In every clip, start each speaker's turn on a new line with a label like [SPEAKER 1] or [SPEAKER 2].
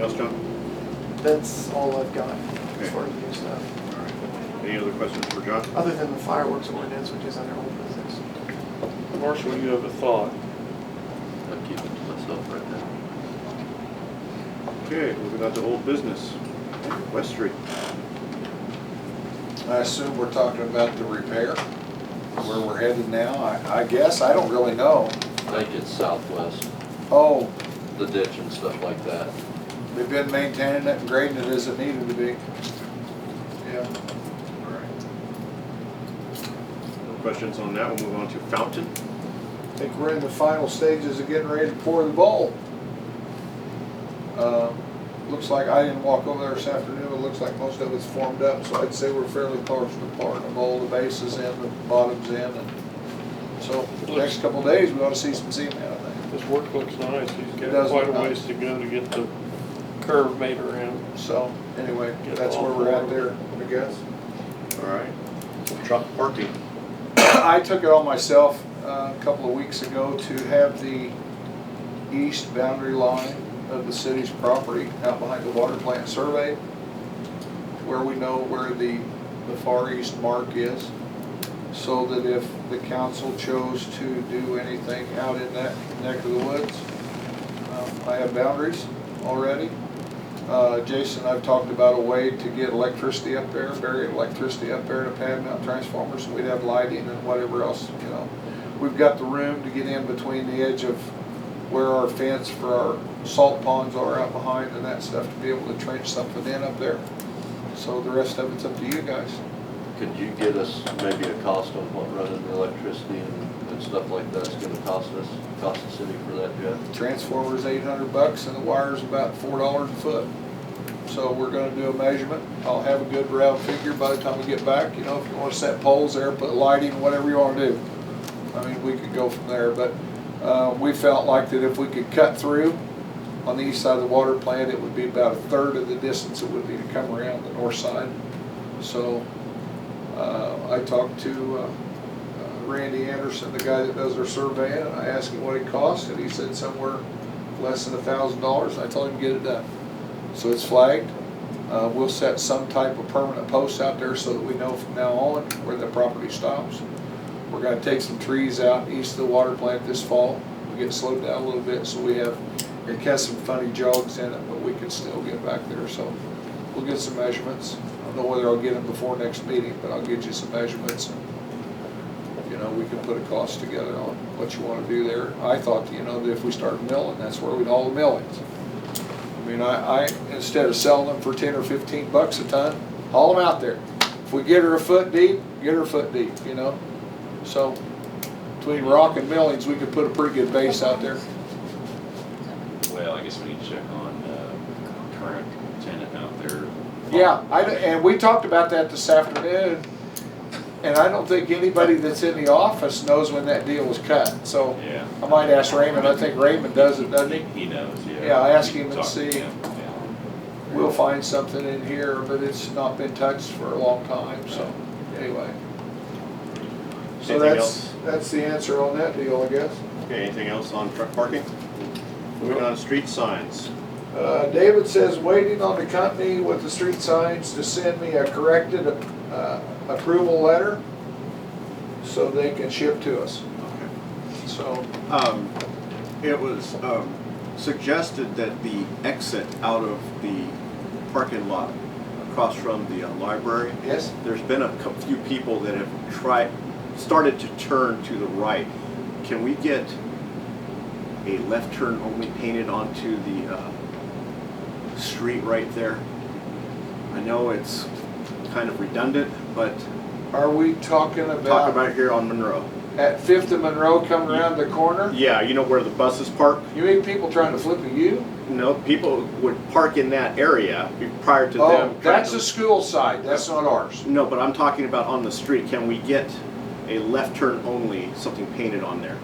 [SPEAKER 1] else, John?
[SPEAKER 2] That's all I've got as far as new stuff,
[SPEAKER 1] All right. Any other questions for John?
[SPEAKER 2] other than the fireworks ordinance, which is under old business.
[SPEAKER 3] Marshall, you have a thought?
[SPEAKER 4] I'll keep it to myself right now.
[SPEAKER 1] Okay, moving on to old business. West Street.
[SPEAKER 5] I assume we're talking about the repair, where we're headed now, I, I guess, I don't really know.
[SPEAKER 4] I think it's southwest,
[SPEAKER 5] Oh,
[SPEAKER 4] the ditch and stuff like that.
[SPEAKER 5] we've been maintaining it and grading it as it needed to be. Yeah.
[SPEAKER 1] No questions on that. We'll move on to Fountain.
[SPEAKER 5] I think we're in the final stages of getting ready to pour the bowl. Uh, Looks like, I didn't walk over there this afternoon, it looks like most of it's formed up, so I'd say we're fairly close to pouring the bowl, the base is in, the bottom's in, and so the next couple of days, we ought to see some cement, I think.
[SPEAKER 3] This work looks nice. He's
[SPEAKER 5] It
[SPEAKER 3] got
[SPEAKER 5] does
[SPEAKER 3] quite a
[SPEAKER 5] look nice.
[SPEAKER 3] ways to go to get the curve made around.
[SPEAKER 5] So, anyway, that's where we're at there, I guess.
[SPEAKER 1] All right. Truck parking.
[SPEAKER 5] I took it on myself uh, a couple of weeks ago to have the east boundary line of the city's property out behind the water plant surveyed, where we know where the, the far east mark is, so that if the council chose to do anything out in that neck of the woods, um, I have boundaries already. Uh, Jason, I've talked about a way to get electricity up there, bury electricity up there in a pad mount transformer, so we'd have lighting and whatever else, you know. We've got the room to get in between the edge of where our fence for our salt ponds are out behind and that stuff, to be able to trench something in up there. So the rest of it's up to you guys.
[SPEAKER 4] Could you get us maybe a cost on what running the electricity and, and stuff like that's gonna cost us, cost the city for that yet?
[SPEAKER 5] Transformer's eight hundred bucks and the wire's about four dollars a foot. So we're gonna do a measurement. I'll have a good round figure by the time we get back, you know, if you wanna set poles there, put lighting, whatever you wanna do. I mean, we could go from there, but, uh, we felt like that if we could cut through on the east side of the water plant, it would be about a third of the distance it would be to come around the north side. So, uh, I talked to, uh, uh, Randy Anderson, the guy that does our surveying, and I asked him what it cost, and he said somewhere less than a thousand dollars, I told him, get it done. So it's flagged, uh, we'll set some type of permanent post out there so that we know from now on where the property stops. We're gonna take some trees out east of the water plant this fall, we get slowed down a little bit, so we have, it has some funny jogs in it, but we can still get back there, so we'll get some measurements. I don't know whether I'll get them before next meeting, but I'll get you some measurements and you know, we can put a cost together on what you wanna do there. I thought, you know, that if we started milling, that's where we'd haul the millings. I mean, I, I, instead of selling them for ten or fifteen bucks a ton, haul them out there. If we get her a foot deep, get her a foot deep, you know? So, between rock and millings, we could put a pretty good base out there.
[SPEAKER 6] Well, I guess we need to check on uh, current tenant out there.
[SPEAKER 5] Yeah, I, and we talked about that this afternoon, and I don't think anybody that's in the office knows when that deal was cut, so.
[SPEAKER 6] Yeah.
[SPEAKER 5] I might ask Raymond, I think Raymond does it,
[SPEAKER 6] I
[SPEAKER 5] doesn't he?
[SPEAKER 6] think he knows, yeah.
[SPEAKER 5] Yeah, I asked
[SPEAKER 6] You
[SPEAKER 5] him
[SPEAKER 6] can
[SPEAKER 5] and
[SPEAKER 6] talk to
[SPEAKER 5] see.
[SPEAKER 6] him, yeah.
[SPEAKER 5] We'll find something in here, but it's not been touched for a long time, so, anyway. So
[SPEAKER 1] Anything
[SPEAKER 5] that's,
[SPEAKER 1] else?
[SPEAKER 5] that's the answer on that deal, I guess.
[SPEAKER 1] Okay, anything else on truck parking? Moving on to street signs.
[SPEAKER 5] Uh, David says, waiting on the company with the street signs to send me a corrected, uh, approval letter so they can ship to us,
[SPEAKER 1] Okay.
[SPEAKER 5] so.
[SPEAKER 7] Um, It was um, suggested that the exit out of the parking lot across from the uh, library,
[SPEAKER 5] Yes?
[SPEAKER 7] there's been a cou- few people that have tried, started to turn to the right. Can we get a left turn only painted onto the uh, street right there? I know it's kind of redundant, but
[SPEAKER 5] Are we talking
[SPEAKER 7] talk
[SPEAKER 5] about
[SPEAKER 7] about here on Monroe.
[SPEAKER 5] at Fifth and Monroe coming around the corner?
[SPEAKER 7] Yeah, you know where the buses park?
[SPEAKER 5] You mean people trying to flip a U?
[SPEAKER 7] No, people would park in that area be- prior to them.
[SPEAKER 5] Oh, that's a
[SPEAKER 7] trying to-
[SPEAKER 5] school side, that's not ours.
[SPEAKER 7] No, but I'm talking about on the street. Can we get a left turn only, something painted on there?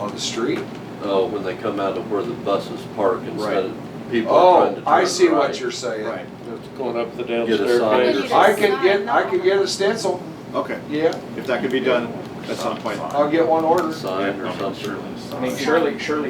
[SPEAKER 5] On the street?
[SPEAKER 4] Oh, when they come out of where the buses park
[SPEAKER 7] Right.
[SPEAKER 4] instead of people are trying to
[SPEAKER 5] Oh,
[SPEAKER 4] turn right.
[SPEAKER 5] I see what you're saying.
[SPEAKER 7] Right,
[SPEAKER 3] It's going up the down
[SPEAKER 4] Get a sign.
[SPEAKER 3] staircase.
[SPEAKER 8] Maybe
[SPEAKER 5] I
[SPEAKER 8] just
[SPEAKER 5] could get,
[SPEAKER 8] sign
[SPEAKER 5] I could
[SPEAKER 8] on.
[SPEAKER 5] get a stencil,
[SPEAKER 7] okay.
[SPEAKER 5] yeah,
[SPEAKER 7] If that could be done, that's on point.
[SPEAKER 5] I'll get one ordered.
[SPEAKER 4] Sign or
[SPEAKER 6] Yeah,
[SPEAKER 4] something.
[SPEAKER 6] Shirley's.
[SPEAKER 9] I mean, surely, surely